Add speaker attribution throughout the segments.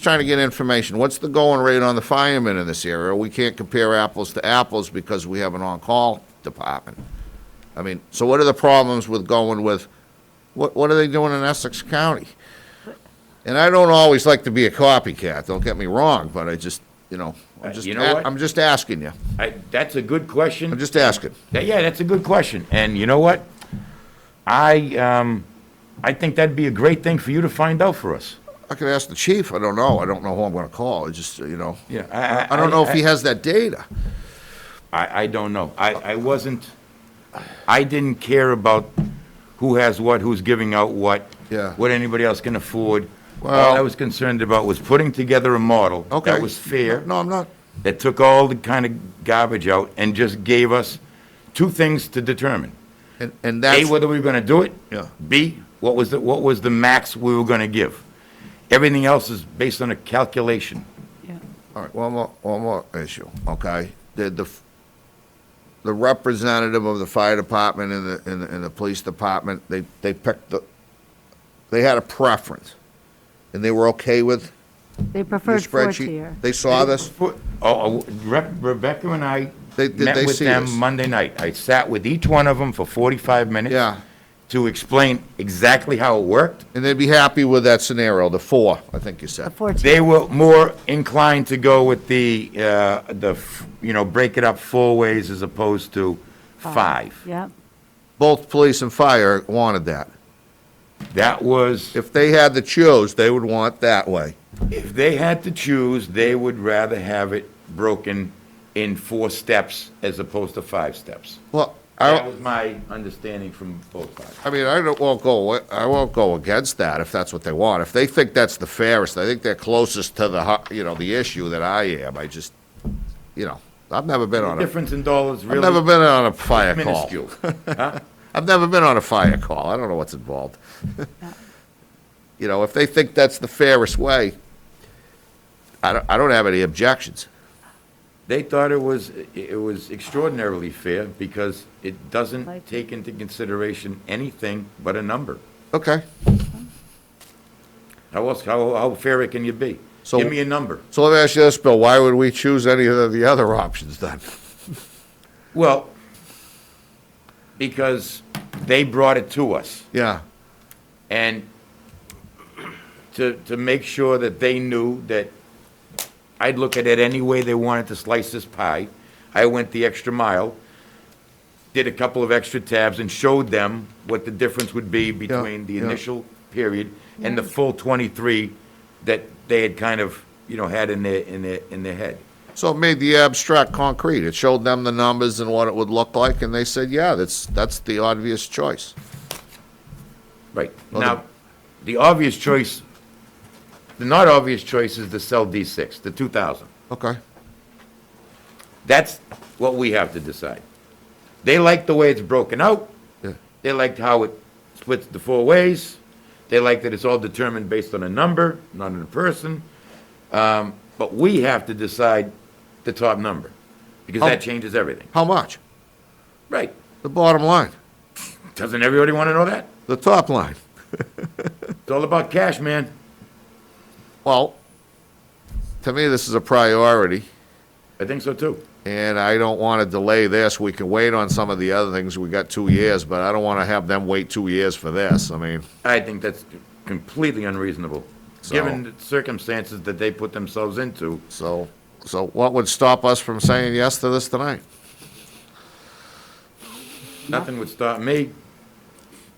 Speaker 1: trying to get information. What's the going rate on the firemen in this area? We can't compare apples to apples because we have an on-call department. I mean, so what are the problems with going with, what, what are they doing in Essex County? And I don't always like to be a copycat, don't get me wrong, but I just, you know, I'm
Speaker 2: Uh,
Speaker 1: just,
Speaker 2: you know
Speaker 1: a-
Speaker 2: what?
Speaker 1: I'm just asking you.
Speaker 2: I, that's a good
Speaker 1: I'm
Speaker 2: question.
Speaker 1: just asking.
Speaker 2: That- Yeah, that's a good question. And you know what? I, um, I think that'd be a great thing for you to find out for us.
Speaker 1: I could ask the chief, I don't know, I don't know who I'm gonna call, I just, you know.
Speaker 2: Yeah,
Speaker 1: I don't know if he has that data.
Speaker 2: I, I don't know. I, I wasn't, I didn't care about who has what, who's giving out what.
Speaker 1: Yeah.
Speaker 2: What anybody else can afford.
Speaker 1: Well-
Speaker 2: All I was concerned about was putting together a model.
Speaker 1: Okay.
Speaker 2: That was fair.
Speaker 1: No, I'm not,
Speaker 2: that took all the kind of garbage out and just gave us two things to determine.
Speaker 1: and, and
Speaker 2: A,
Speaker 1: that's,
Speaker 2: whether we were gonna do it.
Speaker 1: Yeah.
Speaker 2: B, what was the, what was the max we were gonna give? Everything else is based on a calculation.
Speaker 3: Yeah.
Speaker 1: all right, one more, one more issue, okay? Did the, f- the representative of the fire department and the, and the, and the police department, they, they picked the, they had a preference, and they were okay with
Speaker 3: They
Speaker 1: your
Speaker 3: preferred four tier.
Speaker 1: spreadsheet? They saw this?
Speaker 2: Oh, Oh, Re- Rebecca and I
Speaker 1: They- did
Speaker 2: met
Speaker 1: they
Speaker 2: with
Speaker 1: see
Speaker 2: them
Speaker 1: this?
Speaker 2: Monday night. I sat with each one of them for forty-five minutes.
Speaker 1: Yeah.
Speaker 2: To explain exactly how it worked.
Speaker 1: And they'd be happy with that scenario, the four, I think you
Speaker 3: A
Speaker 1: said.
Speaker 3: four tier.
Speaker 2: They were more inclined to go with the, uh, the, f- you know, break it up four ways as opposed to five.
Speaker 3: Yep.
Speaker 1: Both police and fire wanted that.
Speaker 2: That was,
Speaker 1: If they had to choose, they would want that way.
Speaker 2: if they had to choose, they would rather have it broken in four steps as opposed to five steps.
Speaker 1: Well, I,
Speaker 2: That
Speaker 1: don't-
Speaker 2: was my understanding from both sides.
Speaker 1: I mean, I don't, won't go, I won't go against that if that's what they want. If they think that's the fairest, I think they're closest to the, hu- you know, the issue that I am. I just, you know, I've never been
Speaker 2: The
Speaker 1: on a,
Speaker 2: difference in dollars
Speaker 1: I've never
Speaker 2: really
Speaker 1: been on a fire call.
Speaker 2: minuscule. Huh?
Speaker 1: I've never been on a fire call. I don't know what's involved. You know, if they think that's the fairest way, I don't, I don't have any objections.
Speaker 2: They thought it was, it was extraordinarily fair because it doesn't
Speaker 3: Like-
Speaker 2: take into consideration anything but a number.
Speaker 1: Okay,
Speaker 2: How else, how, how fair can you be?
Speaker 1: So-
Speaker 2: Give me a number.
Speaker 1: so let me ask you this, Bill, why would we choose any of the other options then?
Speaker 2: Well, because they brought it to us.
Speaker 1: Yeah,
Speaker 2: And to, to make sure that they knew that I'd look at it any way they wanted to slice this pie, I went the extra mile, did a couple of extra tabs and showed them what the difference would be between the
Speaker 1: yeah.
Speaker 2: initial period and the full 23 that they had kind of, you know, had in their, in their, in their head.
Speaker 1: so it made the abstract concrete. It showed them the numbers and what it would look like, and they said, yeah, that's, that's the obvious choice.
Speaker 2: Right.
Speaker 1: Well, the-
Speaker 2: Now, the obvious choice, the not obvious choice is to sell D6, the 2,000.
Speaker 1: Okay,
Speaker 2: That's what we have to decide. They like the way it's broken out.
Speaker 1: Yeah.
Speaker 2: They liked how it splits the four ways. They like that it's all determined based on a number, not on a person. Um, But we have to decide the top number, because
Speaker 1: Oh.
Speaker 2: that changes everything.
Speaker 1: how much?
Speaker 2: Right.
Speaker 1: The bottom line,
Speaker 2: Doesn't everybody want to know that?
Speaker 1: the top line.
Speaker 2: It's all about cash, man.
Speaker 1: Well, to me, this is a priority.
Speaker 2: I think so, too.
Speaker 1: And I don't want to delay this. We can wait on some of the other things. We got two years, but I don't want to have them wait two years for this. I mean,
Speaker 2: I think that's completely unreasonable,
Speaker 1: So-
Speaker 2: given the circumstances that they put themselves into.
Speaker 1: so, so what would stop us from saying yes to this tonight?
Speaker 2: Nothing would stop me.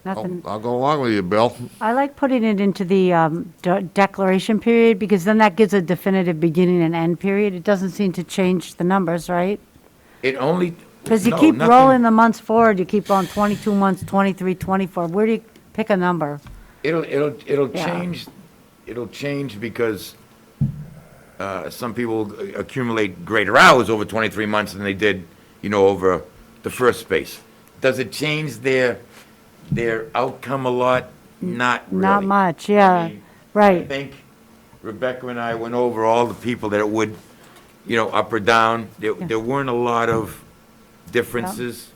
Speaker 1: I'll,
Speaker 2: Oh,
Speaker 3: Nothing.
Speaker 1: I'll go along with you, Bill.
Speaker 3: I like putting it into the um, de- declaration period because then that gives a definitive beginning and end period. It doesn't seem to change the numbers, right?
Speaker 2: It only.
Speaker 3: Because you
Speaker 2: no,
Speaker 3: keep
Speaker 2: nothing-
Speaker 3: rolling the months forward, you keep on 22 months, 23, 24. Where do you pick a number?
Speaker 2: It'll, it'll, it'll
Speaker 3: Yeah.
Speaker 2: change, it'll change because uh, some people accumulate greater hours over 23 months than they did, you know, over the first space. Does it change their, their outcome a lot? Not really.
Speaker 3: Not much, yeah,
Speaker 2: mean, I
Speaker 3: right.
Speaker 2: think Rebecca and I went over all the people that it would, you know, up or down. There, there weren't a lot of differences,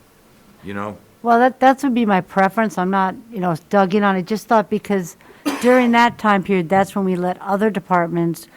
Speaker 2: you know?
Speaker 3: Well, that, that's would be my preference. I'm not, you know, dug in on it. Just thought because during that time period, that's when we let other departments